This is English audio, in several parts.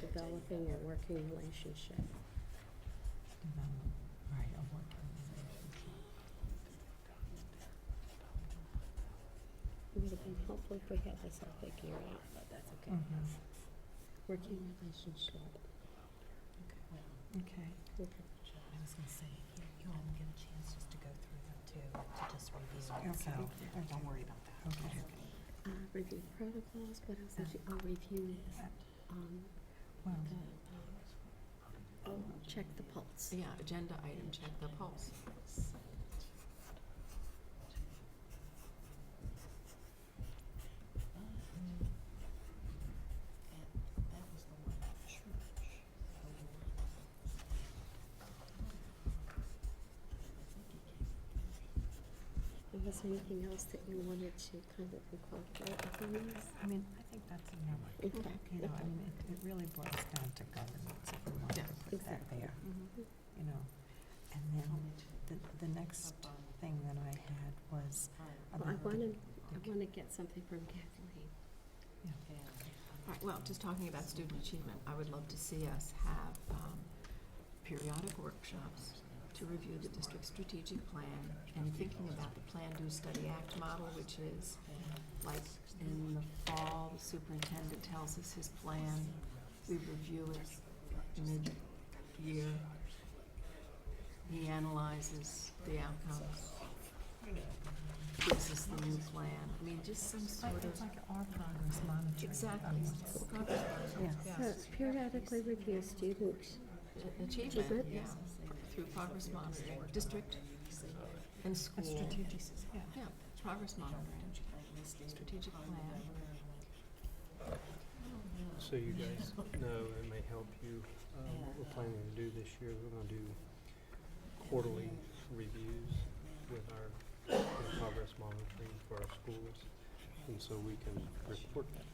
developing a working relationship. Develop, Mm-hmm. right, a working relationship. It would have been helpful if we had this all figured out, but that's okay. Mhm. Working relationship. Okay. I was gonna say, you you all get a chance just to go through them too, and to just review it, so Okay. don't worry about that. Okay. That's Uh, review protocols, what else did you, oh, review, um, Well, the, um, oh, check the pulse. Yeah, agenda item, check the pulse. That was the one at church. And Was there anything else that you wanted to kind of incorporate within this? I mean, I think that's enough. Okay, You know, I okay. mean, it, it really boils down to governance if we want to Yes, put that exactly. there, you know. And then the, the next thing that I had was Well, I about the- wanna, I okay. wanna get something from Kathleen. All right, well, just talking about student achievement, I would love to see us have um, periodic workshops to review the district's strategic plan and thinking about the Plan, Do, Study, Act model, which is like in the fall, the superintendent tells us his plan, we review it mid-year. He analyzes the outcomes, gives us the new plan, I mean, just some Like, sort it's of. like our progress monitoring. Exactly. of what's- Yeah. So periodically review student Achievement, Achievement. yeah, through progress monitoring, district and A school. strategic, yeah. Yeah, progress monitoring, strategic plan. So you guys know, it may help you, um, we're planning to do this year, we're gonna do quarterly reviews with our with progress monitoring for our schools. And so we can report that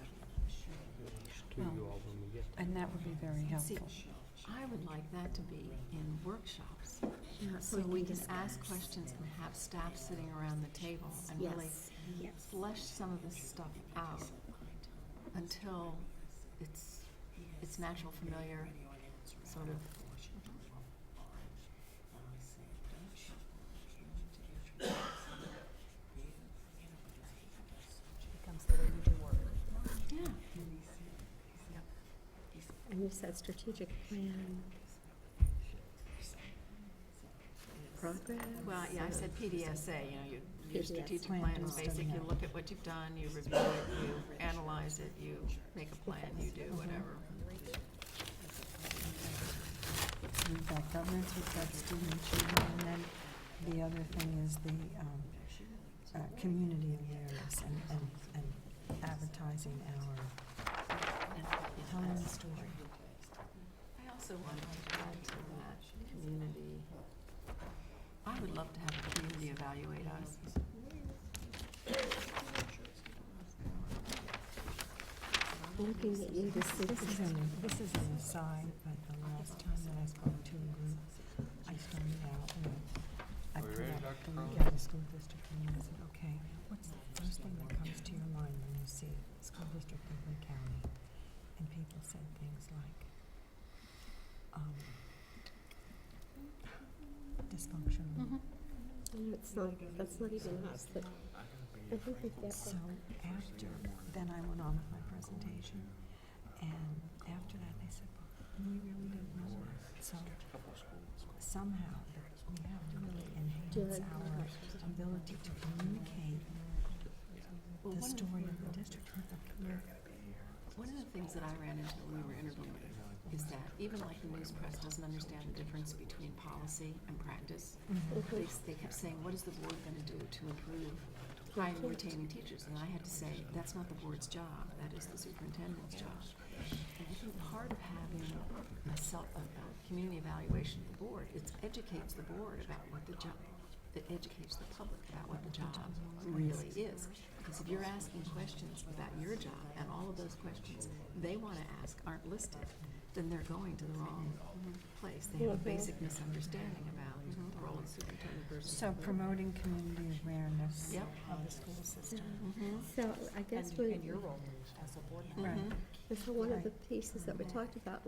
to you all when we get there. And that would be very See, helpful. I would like that to be in workshops, so we we can can ask discuss. questions and have staff sitting around the table and really Yes, yes. flesh some of this stuff out until it's, it's natural, familiar, sort of. Becomes the way you do work. Yeah. And you said strategic plan. Progress. Well, yeah, I said PDSA, you know, your, your PDSA. strategic Plan plan and is study basic, you out. look at what you've done, you review it, you analyze it, you make a plan, you do whatever. We've got governance, we've got student achievement, and then the other thing is the, um, uh, community awareness and, and, and advertising our, telling the story. I also want to add to that community. I would love to have the community evaluate us. Looking at you, this This is an, this is an aside, but the last time that I spoke to a group, I started out with, I put up the week of the school district, and I said, okay, what's the first thing that comes to your mind when you see school district of Lee County? And people said things like, um, dysfunctional. It's not, that's not even us, but I think that that's. So after, then I went on with my presentation, and after that, they said, well, we really didn't know that, so somehow, we have to really enhance Good. our ability to communicate Well, the one of- story of the district with the community. One of the things that I ran into when we were interviewing is that even like the news press doesn't understand the difference between policy and practice. Mm-hmm. They, s- they kept saying, what is the board gonna do to improve hiring and retaining teachers? And I had to say, that's not the board's job, that is the superintendent's job. And I think part of having a self, a, a community evaluation of the board, it educates the board about what the job, it educates the public about what the job really is. Because if you're asking questions about your job and all of those questions they want to ask aren't listed, then they're going to the wrong place. They have a basic misunderstanding about the role of superintendent versus. Mm-hmm. So promoting community awareness Yep. of the school system. So I guess And, we, and your role as a board member. Right. Mhm. and so one of the pieces that we talked about